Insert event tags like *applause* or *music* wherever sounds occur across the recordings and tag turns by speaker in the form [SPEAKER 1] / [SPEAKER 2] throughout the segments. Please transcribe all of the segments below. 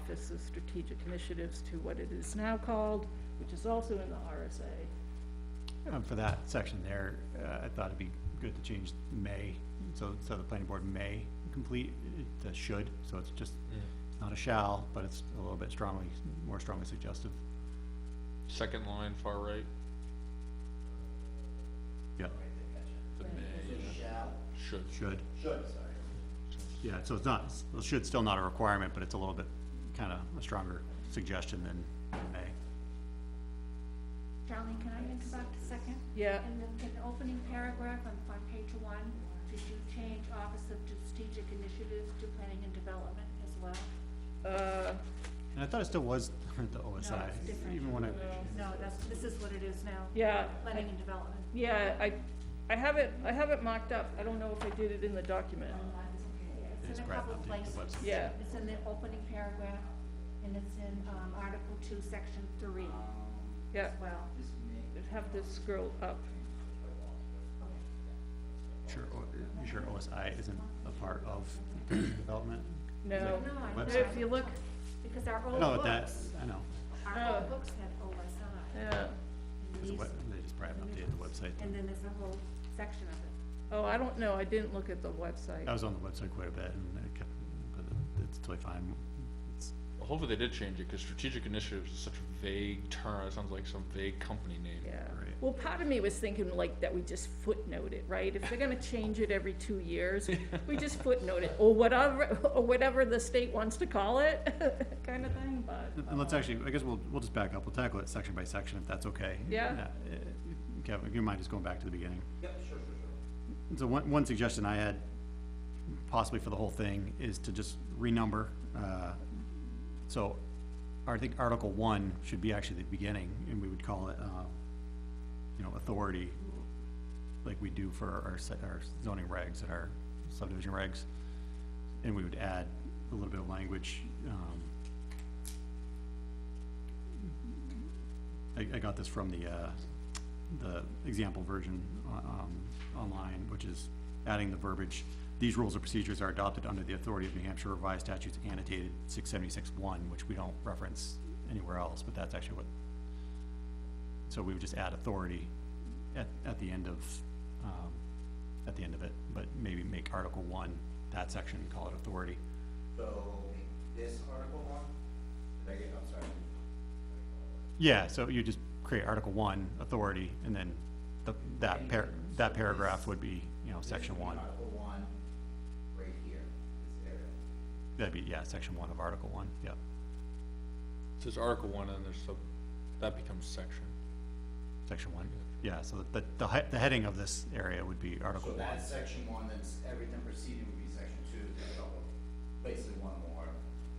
[SPEAKER 1] Office of Strategic Initiatives to what it is now called, which is also in the RSA.
[SPEAKER 2] Um, for that section there, uh, I thought it'd be good to change may, so, so the planning board may complete, uh, to should, so it's just, it's not a shall, but it's a little bit strongly, more strongly suggestive.
[SPEAKER 3] Second line, far right,
[SPEAKER 2] Yeah,
[SPEAKER 3] the may, should,
[SPEAKER 2] should. Should, sorry. Yeah, so it's not, it's- well, should still not a requirement, but it's a little bit, kinda a stronger suggestion than may.
[SPEAKER 4] Charlene, can I interrupt a second?
[SPEAKER 1] Yeah.
[SPEAKER 4] In the, in the opening paragraph on, on page one, did you change Office of Strategic Initiatives to Planning and Development as well?
[SPEAKER 1] Uh,
[SPEAKER 2] And I thought it still was *laughs* the
[SPEAKER 4] No,
[SPEAKER 2] OSI,
[SPEAKER 4] it's different.
[SPEAKER 2] even when I,
[SPEAKER 4] No, that's, this is what it is now.
[SPEAKER 1] Yeah.
[SPEAKER 4] Planning and Development.
[SPEAKER 1] yeah, I, I have it, I have it mocked up, I don't know if I did it in the document.
[SPEAKER 2] It's
[SPEAKER 4] It's in a
[SPEAKER 2] right
[SPEAKER 4] couple
[SPEAKER 2] up to the
[SPEAKER 4] places.
[SPEAKER 2] website.
[SPEAKER 1] Yeah.
[SPEAKER 4] It's in the opening paragraph, and it's in, um, Article two, Section three
[SPEAKER 1] Yeah,
[SPEAKER 4] as well.
[SPEAKER 1] I'd have to scroll up.
[SPEAKER 2] sure, o- you sure OSI isn't a part of development?
[SPEAKER 1] No,
[SPEAKER 4] No, I know.
[SPEAKER 2] Website.
[SPEAKER 1] if you look,
[SPEAKER 4] Because our
[SPEAKER 2] I know
[SPEAKER 4] old
[SPEAKER 2] what that,
[SPEAKER 4] books,
[SPEAKER 2] I know.
[SPEAKER 4] our
[SPEAKER 1] Oh.
[SPEAKER 4] old books had OSI.
[SPEAKER 1] yeah,
[SPEAKER 4] and
[SPEAKER 2] There's a
[SPEAKER 4] these-
[SPEAKER 2] web- They just probably haven't updated the website.
[SPEAKER 4] And then there's a whole section of it.
[SPEAKER 1] oh, I don't know, I didn't look at the website.
[SPEAKER 2] I was on the website quite a bit and I kept, but it's totally fine. It's,
[SPEAKER 3] hopefully they did change it, cause strategic initiatives is such a vague term, it sounds like some vague company name.
[SPEAKER 1] Yeah,
[SPEAKER 2] Right.
[SPEAKER 1] well, part of me was thinking like that we just footnote it, right? If they're gonna change it every two years, we just footnote it, or whatever, or whatever the state wants to call it, *laughs* kind of thing, but,
[SPEAKER 2] and let's actually, I guess we'll, we'll just back up. We'll tackle it section by section if that's okay.
[SPEAKER 1] Yeah.
[SPEAKER 2] Uh, Kevin, if you mind just going back to the beginning. Yep, sure, sure, sure. So one, one suggestion I had possibly for the whole thing is to just renumber, uh, so I think Article One should be actually the beginning and we would call it, uh, you know, authority like we do for our, se- our zoning regs and our subdivision regs. And we would add a little bit of language, um, I, I got this from the, uh, the example version, uh, um, online, which is adding the verbiage. These rules or procedures are adopted under the authority of New Hampshire revised statutes annotated six seventy-six one, which we don't reference anywhere else, but that's actually what. So we would just add authority at, at the end of, um, at the end of it, but maybe make Article one, that section, call it authority.
[SPEAKER 5] So this article one, I get, I'm sorry.
[SPEAKER 2] Yeah, so you just create Article One, authority, and then the, that par, that paragraph would be, you know, section
[SPEAKER 5] This would be
[SPEAKER 2] one.
[SPEAKER 5] Article one, right here, this area.
[SPEAKER 2] That'd be, yeah, section one of Article One, yeah.
[SPEAKER 3] So there's article one and there's sub, that becomes section.
[SPEAKER 2] Section one, yeah, so the, the, he- the heading of this area would be Article One.
[SPEAKER 5] So that's section one, then s- everything preceding would be section two, there's a couple, basically one more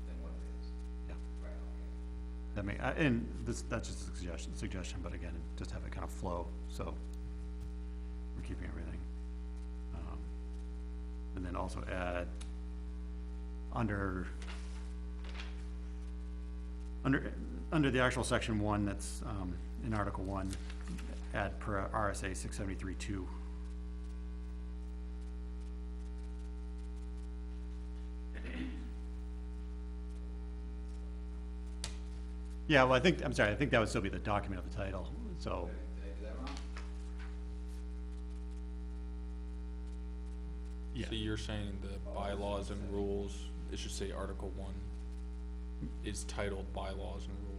[SPEAKER 5] than what it is.
[SPEAKER 2] Yeah.
[SPEAKER 5] Right, okay.
[SPEAKER 2] That may, I- and this, that's just a suggestion, suggestion, but again, just have it kind of flow, so we're keeping everything. Um, And then also add, under, under, under the actual section one that's, um, in Article One, add per RSA six seventy-three two. Yeah, well, I think, I'm sorry, I think that would still be the document of the title, so,
[SPEAKER 5] Did I do that wrong?
[SPEAKER 2] yeah,
[SPEAKER 3] So you're saying the bylaws and rules, it should say article one is titled bylaws and rules.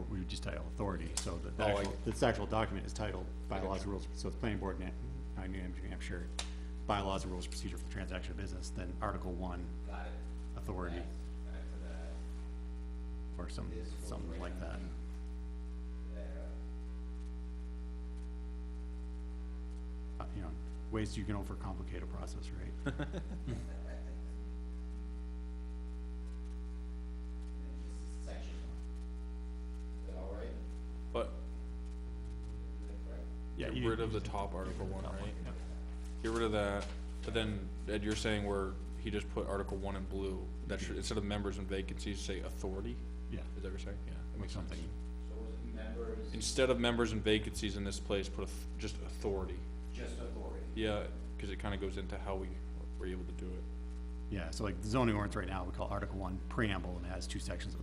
[SPEAKER 2] or we would just title authority, so that the
[SPEAKER 3] Oh, I-
[SPEAKER 2] actual, this actual document is titled bylaws and rules, so it's planning board, Nan- uh, New Hampshire, New Hampshire, bylaws and rules of procedure for the transaction of business, then article one,
[SPEAKER 5] Got it.
[SPEAKER 2] authority,
[SPEAKER 5] Back to that,
[SPEAKER 2] or some, something like that.
[SPEAKER 5] there.
[SPEAKER 2] Uh, You know, ways you can overcomplicate a process, right?
[SPEAKER 5] And then just section one. Is that all right?
[SPEAKER 3] But
[SPEAKER 5] Is that correct?
[SPEAKER 2] Yeah,
[SPEAKER 3] *laughs* get
[SPEAKER 2] you-
[SPEAKER 3] rid of
[SPEAKER 2] you
[SPEAKER 3] the top article one,
[SPEAKER 2] Top one,
[SPEAKER 3] right?
[SPEAKER 2] yep.
[SPEAKER 3] Get rid of that, but then, Ed, you're saying where he just put article one in blue, that should, instead of members and vacancies, say authority?
[SPEAKER 2] Yeah,
[SPEAKER 3] Is that what you're saying? Yeah. that
[SPEAKER 2] or
[SPEAKER 3] makes sense.
[SPEAKER 2] something,
[SPEAKER 5] So was it members,
[SPEAKER 3] Instead of members and vacancies in this place, put auth- just authority.
[SPEAKER 5] just authority?
[SPEAKER 3] Yeah, cause it kinda goes into how we were able to do it.
[SPEAKER 2] yeah, so like the zoning ordinance right now, we call article one preamble, and it has two sections of